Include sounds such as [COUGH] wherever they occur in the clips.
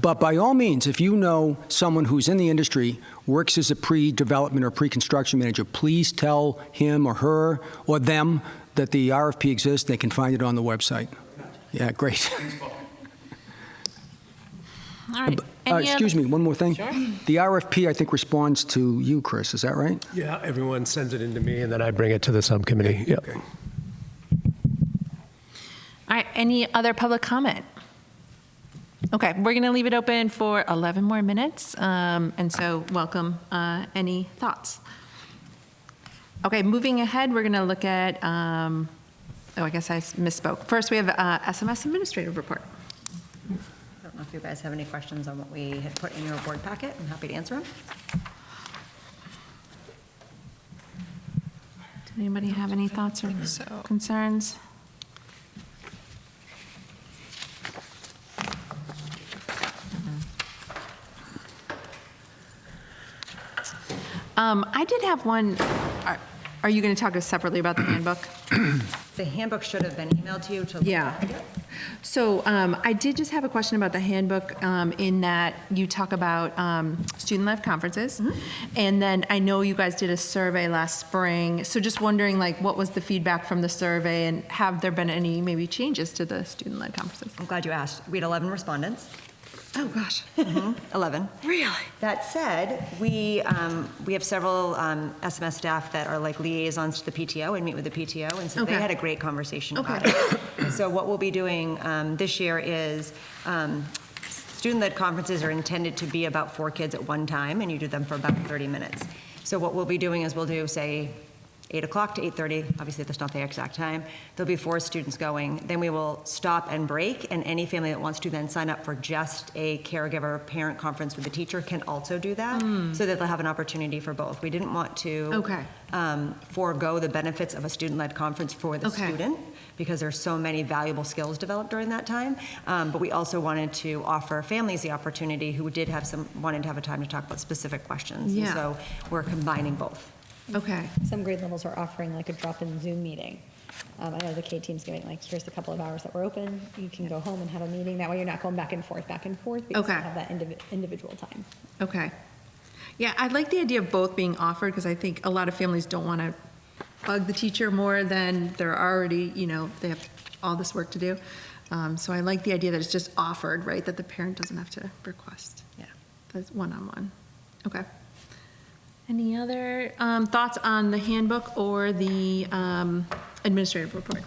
But by all means, if you know someone who's in the industry, works as a pre-development or pre-construction manager, please tell him or her or them that the RFP exists. They can find it on the website. Yeah, great. [LAUGHS] All right. Uh, Any excuse other- me, one more thing. Sure. The RFP, I think, responds to you, Chris. Is that right? Yeah, everyone sends it in to me, and then I bring it to the subcommittee. Yep. All right, any other public comment? Okay, we're going to leave it open for 11 more minutes, um, and so welcome uh, any thoughts. Okay, moving ahead, we're going to look at, um, oh, I guess I s- misspoke. First, we have uh, SMS Administrative Report. I don't know if you guys have any questions on what we had put in your board packet. I'm happy to answer them. Does anybody have any thoughts or concerns? Um, I did have one, are- are you going to talk us separately about the handbook? The handbook should have been emailed to you to. Yeah. So um, I did just have a question about the handbook um, in that you talk about um, student-led conferences. And then I know you guys did a survey last spring. So just wondering, like, what was the feedback from the survey? And have there been any maybe changes to the student-led conferences? I'm glad you asked. We had 11 respondents. Oh, gosh. [LAUGHS] 11. Really? That said, we, um, we have several um, SMS staff that are like liaisons to the PTO and meet with the PTO, and so they Okay. had a great conversation about Okay. it. [COUGHS] And So what we'll be doing um, this year is, um, student-led conferences are intended to be about four kids at one time, and you do them for about 30 minutes. So what we'll be doing is we'll do, say, 8 o'clock to 8:30, obviously that's not the exact time, there'll be four students going, then we will stop and break, and any family that wants to then sign up for just a caregiver parent conference with the teacher can also do that, so that they'll have an opportunity for both. We didn't want to Hmm. Okay. um, forego the benefits of a student-led conference for the Okay. student, because there's so many valuable skills developed during that time. Um, But we also wanted to offer families the opportunity who did have some, wanted to have a time to talk about specific questions. And Yeah. So we're combining both. Okay. some grade levels are offering like a drop-in Zoom meeting. Um, I know the K team's giving like, here's the couple of hours that we're open, you can go home and have a meeting, that way you're not going back and forth, back and forth, because you Okay. have that indivi- individual time. Okay. Yeah, I like the idea of both being offered because I think a lot of families don't want to bug the teacher more than they're already, you know, they have all this work to do. Um, so I like the idea that it's just offered, right? That the parent doesn't have to request. Yeah. That's one on one. Okay. Any other um, thoughts on the handbook or the um, administrative report?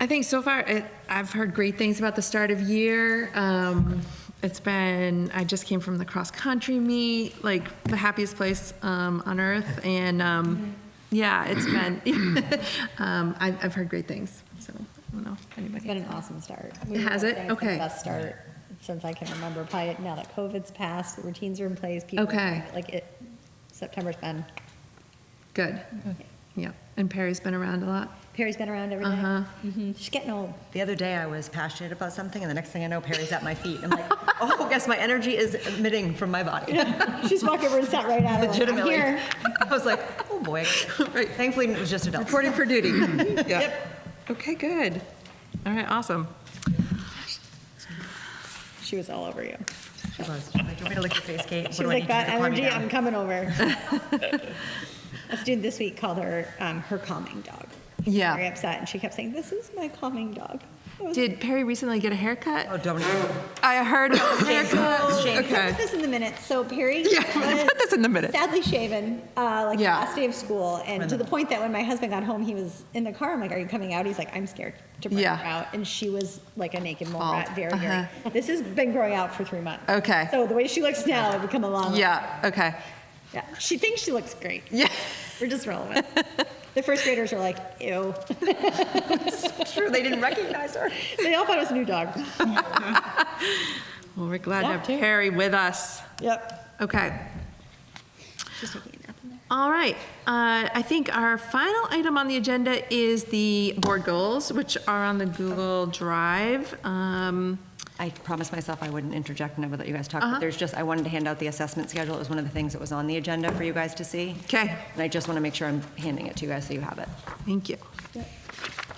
I think so far, it, I've heard great things about the start of year. Um, it's been, I just came from the cross country meet, like the happiest place um, on earth. And um, yeah, it's been, [LAUGHS] um, I, I've heard great things. So I don't know if anybody. It's been an awesome start. Has it? It's been Okay. the best start since I can remember, probably now that COVID's passed, routines are in place, people. Okay. Like it, September's been, Good. Yeah. And Perry's been around a lot. Perry's been around every Uh-huh. day. Mhm. She's getting old. The other day, I was passionate about something, and the next thing I know, Perry's at my feet. I'm like, [LAUGHS] oh, guess my energy is emitting from my body. She's walked over and sat right at her. like, I'm Legitimately. here. I was like, oh, boy. Right. Thankfully, it was just adults. Reporting for [LAUGHS] duty. yeah. Okay, good. All right, awesome. She was all over you. She was. She's like, do you want me to lick your face, Kate? What She do was I like, need to do that to calm you energy, down?" I'm coming over. [LAUGHS] A student this week called her um, her calming dog. She was Yeah. Very upset, and she kept saying, "This is my calming dog." I was Did Perry recently get a haircut? Oh, don't. I heard about the [LAUGHS] haircut. like, [LAUGHS] "We'll Okay. Put this in the minutes. So Perry Yeah, [LAUGHS] was put this in the minutes. sadly shaven, uh, like Yeah. the last day of school, and to the point that when my husband got home, he was in the car. I'm like, "Are you coming out?" He's like, "I'm scared to bring Yeah. her out," and she was like a naked mole Bald. rat, very, very. Uh-huh. [LAUGHS] This has been growing out for three months. Okay. So the way she looks now, it would come along. Yeah, okay. Yeah. She thinks she looks great. Yeah. We're just relevant. the first graders are like, ew. [LAUGHS] True, they didn't recognize her. They all thought it was a new dog. Well, we're glad to Yeah, have too. Perry with us. Yep. Okay. She's taking a nap in there. All right. Uh, I think our final item on the agenda is the board goals, which are on the Google Drive. Um, I promised myself I wouldn't interject and I would let you guys talk, but there's just, I wanted to hand out the assessment schedule. It was one of the things that was on the agenda for you guys to see. Okay. And I just want to make sure I'm handing it to you guys so you have it. Thank you.